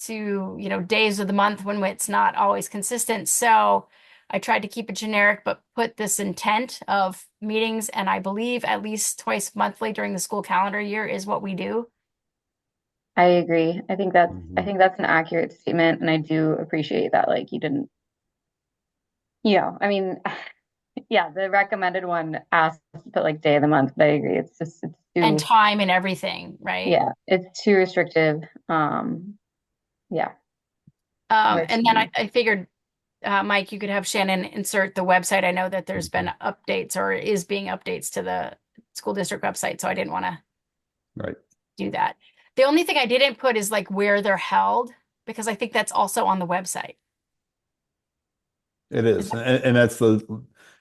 to, you know, days of the month when it's not always consistent. So I tried to keep it generic, but put this intent of meetings, and I believe at least twice monthly during the school calendar year is what we do. I agree. I think that's I Mhm. think that's an accurate statement, and I do appreciate that. Like you didn't, you know, I mean, yeah, the recommended one asks to put like day of the month, but I agree. It's just it's too And time and everything, right? yeah, it's too restrictive. Um, yeah, Um, Right. and then I, I figured, uh, Mike, you could have Shannon insert the website. I know that there's been updates or is being updates to the school district website, so I didn't want to Right. do that. The only thing I didn't put is like where they're held, because I think that's also on the website. It is, and, and that's the,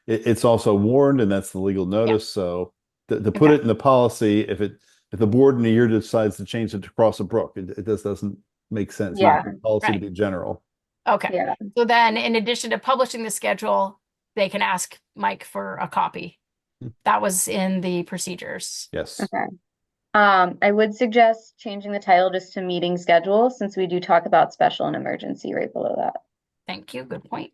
it, it's also warned and that's the legal notice, so to, to put it in the policy, if it, if the board in a year decides to change it to cross a brook, it, it just doesn't make sense. You want the Policy to Right. be general. Okay, yeah, so then in addition to publishing the schedule, they can ask Mike for a copy. Hmm. That was in the procedures. Yes, okay. Um, I would suggest changing the title just to meeting schedule since we do talk about special and emergency right below that. Thank you, good point.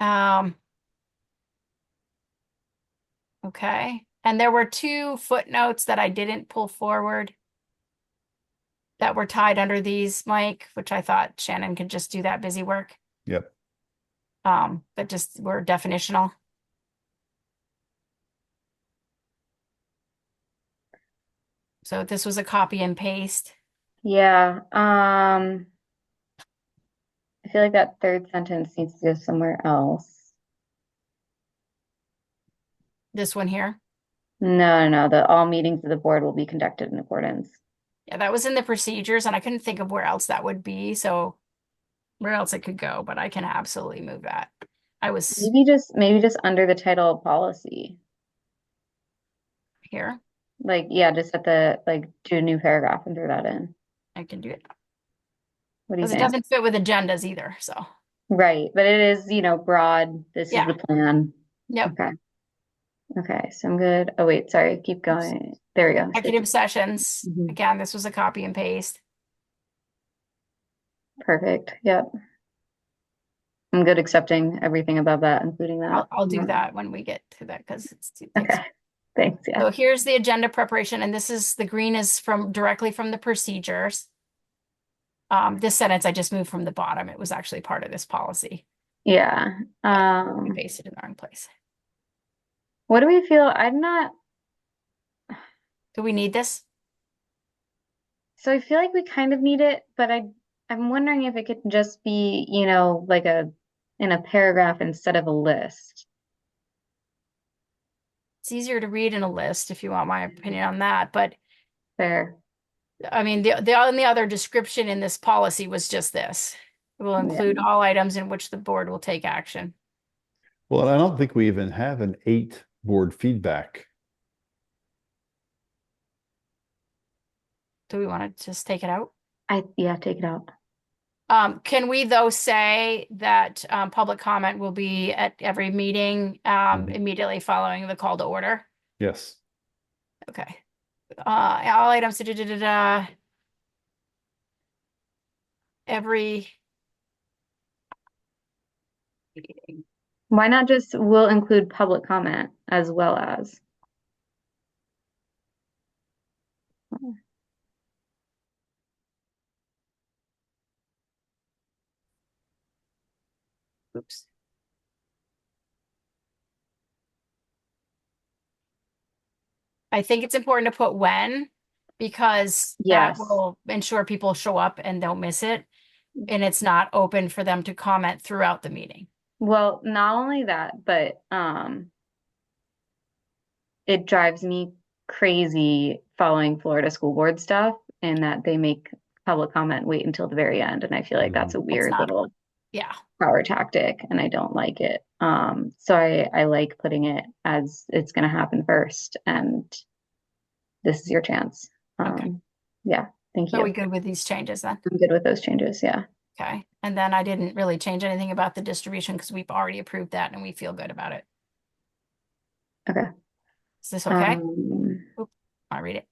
Um. Okay, and there were two footnotes that I didn't pull forward that were tied under these, Mike, which I thought Shannon could just do that busy work. Yep. Um, but just were definitional. So this was a copy and paste. Yeah, um, I feel like that third sentence needs to go somewhere else. This one here. No, no, no, the all meetings of the board will be conducted in accordance. Yeah, that was in the procedures and I couldn't think of where else that would be, so where else it could go, but I can absolutely move that. I was Maybe just maybe just under the title policy. Mm-hmm. here, Like, yeah, just at the like do a new paragraph and throw that in. I can do it. What do you Because it doesn't think? fit with agendas either, so. Right, but it is, you know, broad. This is Yeah. the plan. Yep, Okay. Okay, so I'm good. Oh wait, sorry, keep Oops. going. There we go. executive sessions, Mhm. again, this was a copy and paste. Perfect. Yep. I'm good accepting everything above that, including that. I'll, I'll do Yeah. that when we get to that, because it's. too- it's- Okay, thanks, yeah. So here's the agenda preparation, and this is, the green is from, directly from the procedures. Um, this sentence I just moved from the bottom, it was actually part of this policy, Yeah. I Um, pasted it in the wrong place. what do we feel? I'm not, Do we need this? so I feel like we kind of need it, but I, I'm wondering if it could just be, you know, like a, in a paragraph instead of a list. it's easier to read in a list if you want my opinion on that but Fair. i mean the, the only other description in this policy was just this it will Yeah. include all items in which the board will take action well, and I don't think we even have an eight board feedback. do we want to just take it out I, yeah, take it out. um, can we though say that um, public comment will be at every meeting um, Mhm. immediately following the call to order Yes, okay uh, all items da, da, da, da, da. every Why not just will include public comment as well as? oops I think it's important to put when because Yes. that will ensure people show up and don't miss it. Mm-hmm. And it's not open for them to comment throughout the meeting. Well, not only that, but um, it drives me crazy following Florida school board stuff and that they make public comment wait until the very end. And I feel like that's a weird not- little Yeah. power tactic and I don't like it. Um, so I, I like putting it as it's going to happen first. And this is your chance. Okay. Um, yeah, thank Are we you. good with these changes then? I'm good with those changes. Yeah. Okay. And then I didn't really change anything about the distribution because we've already approved that and we feel good about it. Okay. Is this okay? Um, I'll read it.